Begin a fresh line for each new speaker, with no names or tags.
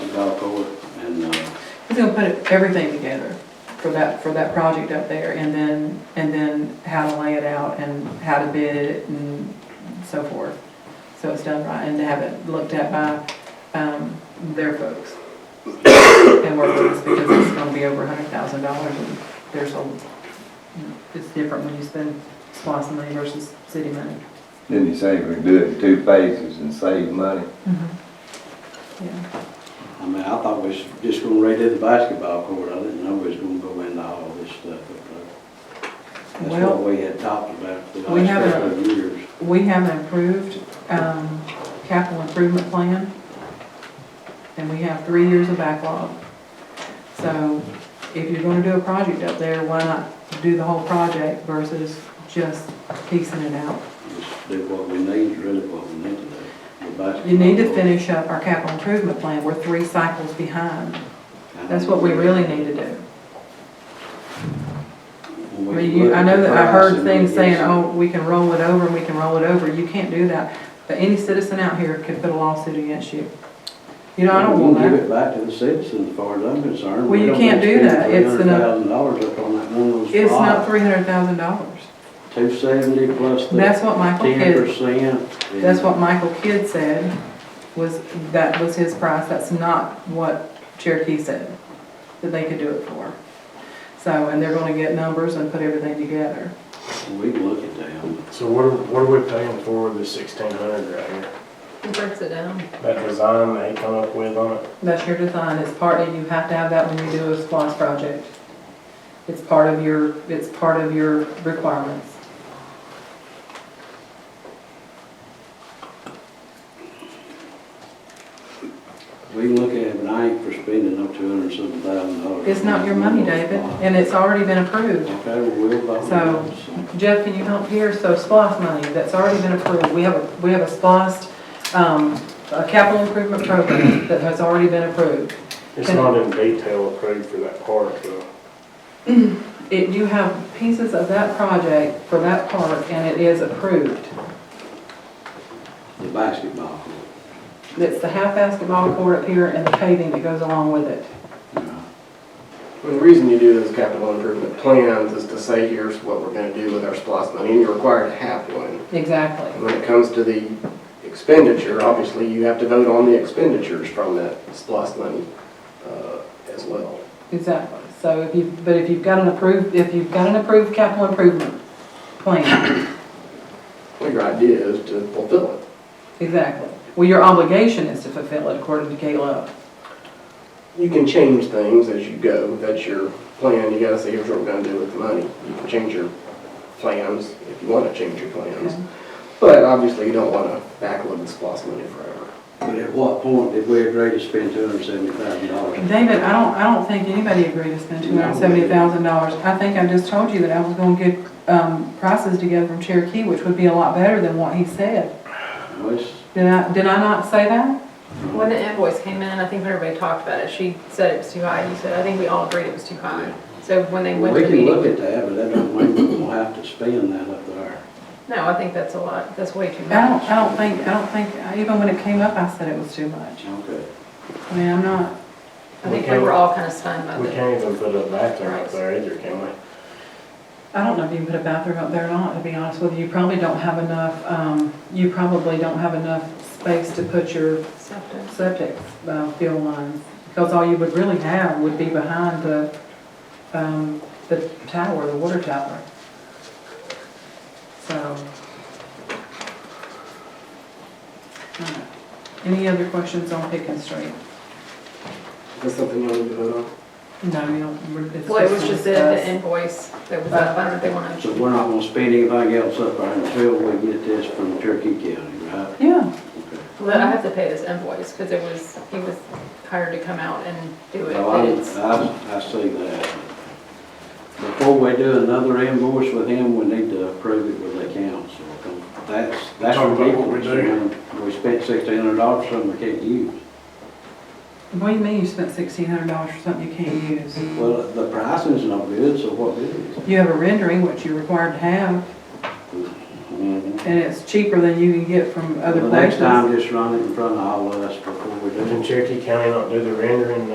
uh,
gonna put everything together for that, for that project up there, and then, and then how to lay it out, and how to bid it, and so forth. So it's done right, and to have it looked at by, um, their folks. And work with us, because it's gonna be over a hundred thousand dollars, and there's a, it's different when you spend SPOS money versus city money.
Didn't you say we do it in two phases and save money?
Yeah,
I mean, I thought we was just gonna redid the basketball court, I didn't know we was gonna go into all this stuff up there. That's
Well-
what we had talked about for the
We
last
haven't-
couple of years.
We have an approved, um, capital improvement plan, and we have three years of backlog. So if you're gonna do a project up there, why not do the whole project versus just piecing it out?
Just do what we need, really what we need to do. The
You need to
basketball
finish up our capital improvement plan, we're three cycles behind.
court.
That's what we really need to do.
When
I
we
mean, you, I
look at
know
the
that I
price
heard
and we
things
get
saying,
some-
oh, we can roll it over and we can roll it over, you can't do that. But any citizen out here could put a lawsuit against you. You know, I don't
We'll
want that.
Give it back to the citizens, as far as I'm concerned.
Well,
We
you
don't
can't do
spend
that. It's an-
$300,000 up on that one of those.
It's not three hundred thousand dollars.
Two seventy plus the
That's what Michael
ten
Kidd,
percent.
that's what Michael Kidd said, was, that was his price, that's not what Cherokee said, that they could do it for. So, and they're gonna get numbers and put everything together.
We can look at them.
So what are, what are we paying for with the sixteen hundred right here?
Who breaks it down?
That design they come up with on it?
That's your design, it's part, and you have to have that when you do a SPOS project. It's part of your, it's part of your requirements.
We can look at it, but I ain't for spending up two hundred and seven thousand dollars.
It's not your money, David, and it's already been approved.
Okay, well, we'll vote.
So- Jeff, can you help here? So SPOS money, that's already been approved. We have, a we have a SPOS, um, a capital improvement program that has already been approved.
It's not in detail approved for that part though.
It, you have pieces of that project for that part, and it is approved.
The basketball court.
It's the half basketball court up here and the paving that goes along with it.
Yeah.
Well, The reason you do those capital improvement plans is to say, here's what we're gonna do with our SPOS money, and you're required to have one. And
Exactly.
when it comes to the expenditure, obviously, you have to vote on the expenditures from that SPOS money, uh, as well.
Exactly. So if you, but if you've got an approved, if you've got an approved capital improvement plan,
Well, Your idea is to fulfill it.
exactly. Well, your obligation is to fulfill it according to KLO.
You can change things as you go, that's your plan, you gotta say, here's what we're gonna do with the money. You can change your plans, if you wanna change your plans. But obviously, you don't wanna backload the SPOS money forever.
But at what point did we agree to spend two hundred and seventy thousand dollars?
David, I don't, I don't think anybody agreed to spend two hundred and seventy thousand dollars. I think I just told you that I was gonna get, um, prices together from Cherokee, which would be a lot better than what he said. Did I, did I not say that?
When the invoice came in, I think when everybody talked about it, she said it was too high, you said, I think we all agreed it was too high. So when they went
We
to the
can look
meeting,
at that, but that don't mean we're gonna have to spend that up there.
no, I think that's a lot, that's way too
I don't,
much.
I don't think, I don't think, even when it came up, I said it was too much.
Okay.
I mean, I'm not,
I think we were all kind of stunned by
We
that.
can't even put a bathroom up there either, can we?
I don't know if you can put a bathroom up there or not, to be honest with you. You probably don't have enough, um, you probably don't have enough space to put your
Septic.
septic uh, field lines, because all you would really have would be behind the, um, the tower, the water tower. So. Alright. uh, Any other questions on Pickens Street?
Is that something you want to vote on?
No, you don't. we're- it's
Well, it was just the- the
us.
invoice that was up, I don't know if they wanted
So
to.
we're not gonna spend anything else up there until we get this from Turkey County, right?
Yeah,
But I have to pay this invoice, because it was, he was hired to come out and do it.
Well, I,
but it's-
I, I see that. Before we do another invoice with him, we need to approve it with the council. That's, that's
Talk about what we
ridiculous. when We spent sixteen hundred dollars on something we can't use.
what do you mean you spent sixteen hundred dollars for something you can't use?
Well, the pricing's no good, so what good is it?
You have a rendering, which you're required to have,
Mm-hmm.
Mhm.
and it's cheaper than you can get from other
The next
places.
time, just run it in front of all of us before we do it.
Did Cherokee County not do the rendering